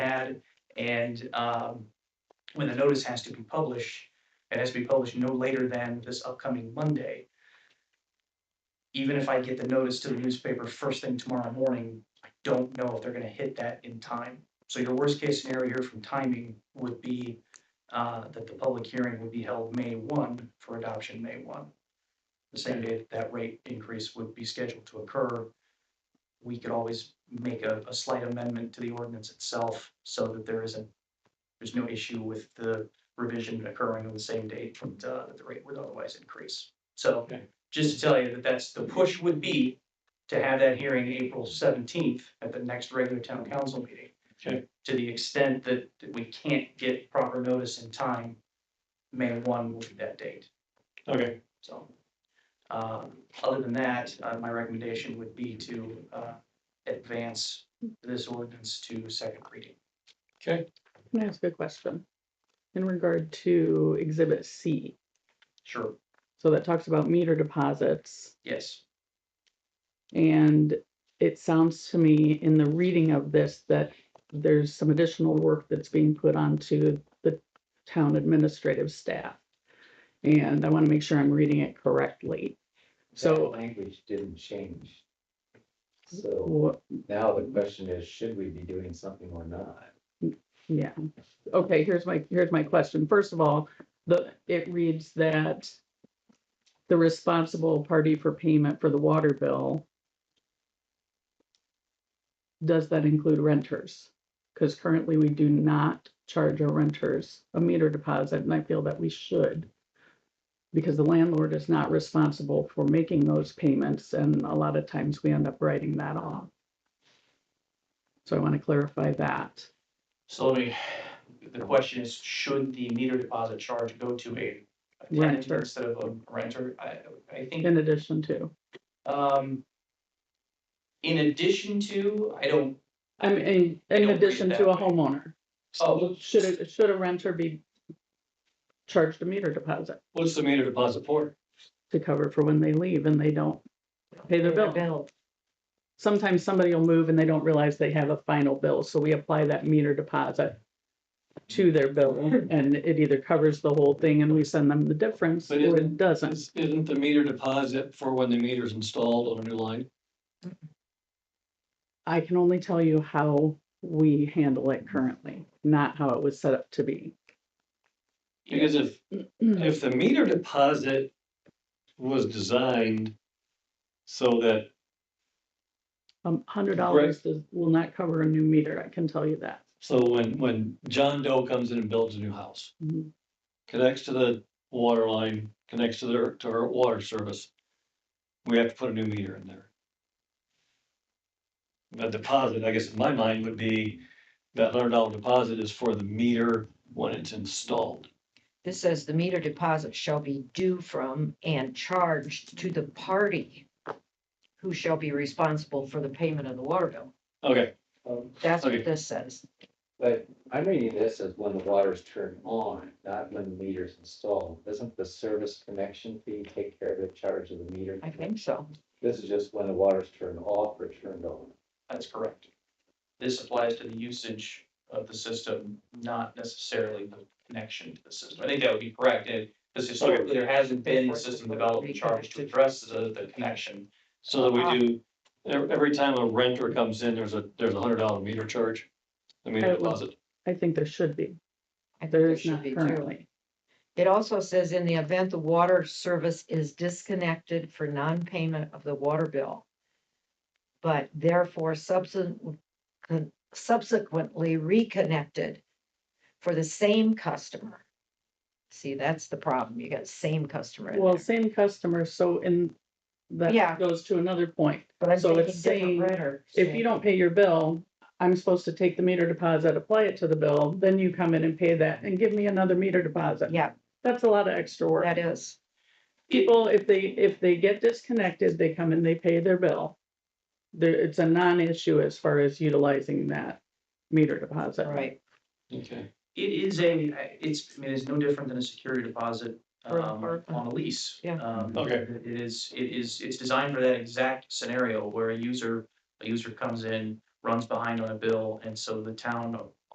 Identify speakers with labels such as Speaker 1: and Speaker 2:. Speaker 1: And um, when the notice has to be published, it has to be published no later than this upcoming Monday. Even if I get the notice to the newspaper first thing tomorrow morning, I don't know if they're gonna hit that in time. So your worst case scenario here from timing would be uh, that the public hearing would be held May one for adoption, May one. The same day that that rate increase would be scheduled to occur. We could always make a, a slight amendment to the ordinance itself so that there isn't, there's no issue with the revision occurring on the same date from, uh, that the rate would otherwise increase. So
Speaker 2: Okay.
Speaker 1: just to tell you that that's, the push would be to have that hearing April seventeenth at the next regular town council meeting to the extent that that we can't get proper notice in time, May one will be that date,
Speaker 2: Okay,
Speaker 1: so. Um, other than that, uh, my recommendation would be to, uh, advance this ordinance to second reading.
Speaker 2: okay,
Speaker 3: Can I ask a question? In regard to exhibit C,
Speaker 1: Sure,
Speaker 3: so that talks about meter deposits.
Speaker 1: yes,
Speaker 3: And it sounds to me in the reading of this that there's some additional work that's being put onto the town administrative staff. And I want to make sure I'm reading it correctly.
Speaker 4: So
Speaker 3: So
Speaker 4: language didn't change. So
Speaker 3: wha-
Speaker 4: now the question is, should we be doing something or not?
Speaker 3: Yeah, okay, here's my, here's my question. First of all, the, it reads that the responsible party for payment for the water bill. Does that include renters? Because currently we do not charge our renters a meter deposit and I feel that we should. Because the landlord is not responsible for making those payments and a lot of times we end up writing that off. So I want to clarify that.
Speaker 1: so let me, the question is, should the meter deposit charge go to a a tenant
Speaker 3: Renter.
Speaker 1: instead of a renter? I, I think.
Speaker 3: In addition to,
Speaker 1: Um, in addition to, I don't,
Speaker 3: I mean,
Speaker 1: don't
Speaker 3: in
Speaker 1: read it
Speaker 3: addition to a
Speaker 1: that way.
Speaker 3: homeowner,
Speaker 1: oh,
Speaker 3: should, a- should a renter be charged a meter deposit
Speaker 2: what's the meter deposit for?
Speaker 3: to cover for when they leave and they don't pay their bill? Sometimes somebody will move and they don't realize they have a final bill, so we apply that meter deposit to their bill and it either covers the whole thing and we send them the difference or
Speaker 2: But isn't-
Speaker 3: it doesn't.
Speaker 2: Is- Isn't the meter deposit for when the meter's installed on a new line?
Speaker 3: I can only tell you how we handle it currently, not how it was set up to be.
Speaker 2: Because if, if the meter deposit was designed so that,
Speaker 3: Um, hundred dollars does, will not cover a new meter, I can tell you that.
Speaker 2: so when, when John Doe comes in and builds a new house,
Speaker 3: Mhm.
Speaker 2: connects to the water line, connects to their, to our water service, we have to put a new meter in there. The deposit, I guess in my mind, would be that hundred dollar deposit is for the meter when it's installed.
Speaker 5: This says the meter deposit shall be due from and charged to the party who shall be responsible for the payment of the water bill.
Speaker 2: Okay,
Speaker 4: Um,
Speaker 5: That's
Speaker 2: Okay.
Speaker 5: what this says.
Speaker 4: But I'm reading this as when the water's turned on, not when the meter's installed. Doesn't the service connection fee take care of the charge of the meter?
Speaker 5: I think so.
Speaker 4: This is just when the water's turned off or turned on.
Speaker 1: that's correct. This applies to the usage of the system, not necessarily the connection to the system. I think that would be correct, and because historically, there hasn't been a system development charge to address the, the connection.
Speaker 2: so that we do, ev- every time a renter comes in, there's a, there's a hundred dollar meter charge. I mean,
Speaker 3: I will-
Speaker 2: deposit,
Speaker 3: I think there should be,
Speaker 5: I think
Speaker 3: there
Speaker 5: there
Speaker 3: is
Speaker 5: should
Speaker 3: not
Speaker 5: be too.
Speaker 3: currently.
Speaker 5: It also says in the event the water service is disconnected for non-payment of the water bill. But therefore subsequent, subsequently reconnected for the same customer. See, that's the problem. You got same customer. in
Speaker 3: Well,
Speaker 5: there.
Speaker 3: same customer, so in,
Speaker 5: Yeah.
Speaker 3: that goes to another point.
Speaker 5: But I'm
Speaker 3: So
Speaker 5: thinking
Speaker 3: it's
Speaker 5: different
Speaker 3: saying,
Speaker 5: renter.
Speaker 3: If you don't pay your bill, I'm supposed to take the meter deposit, apply it to the bill, then you come in and pay that and give me another meter deposit.
Speaker 5: Yeah,
Speaker 3: That's a lot of extra work.
Speaker 5: that is.
Speaker 3: People, if they, if they get disconnected, they come and they pay their bill. There, it's a non-issue as far as utilizing that meter deposit.
Speaker 5: Right.
Speaker 2: okay.
Speaker 1: It is a, it's, I mean, it's no different than a security deposit
Speaker 5: Or-
Speaker 1: um,
Speaker 5: or-
Speaker 1: on a lease.
Speaker 5: Yeah.
Speaker 1: Um,
Speaker 2: Okay.
Speaker 1: It is, it is, it's designed for that exact scenario where a user, a user comes in, runs behind on a bill, and so the town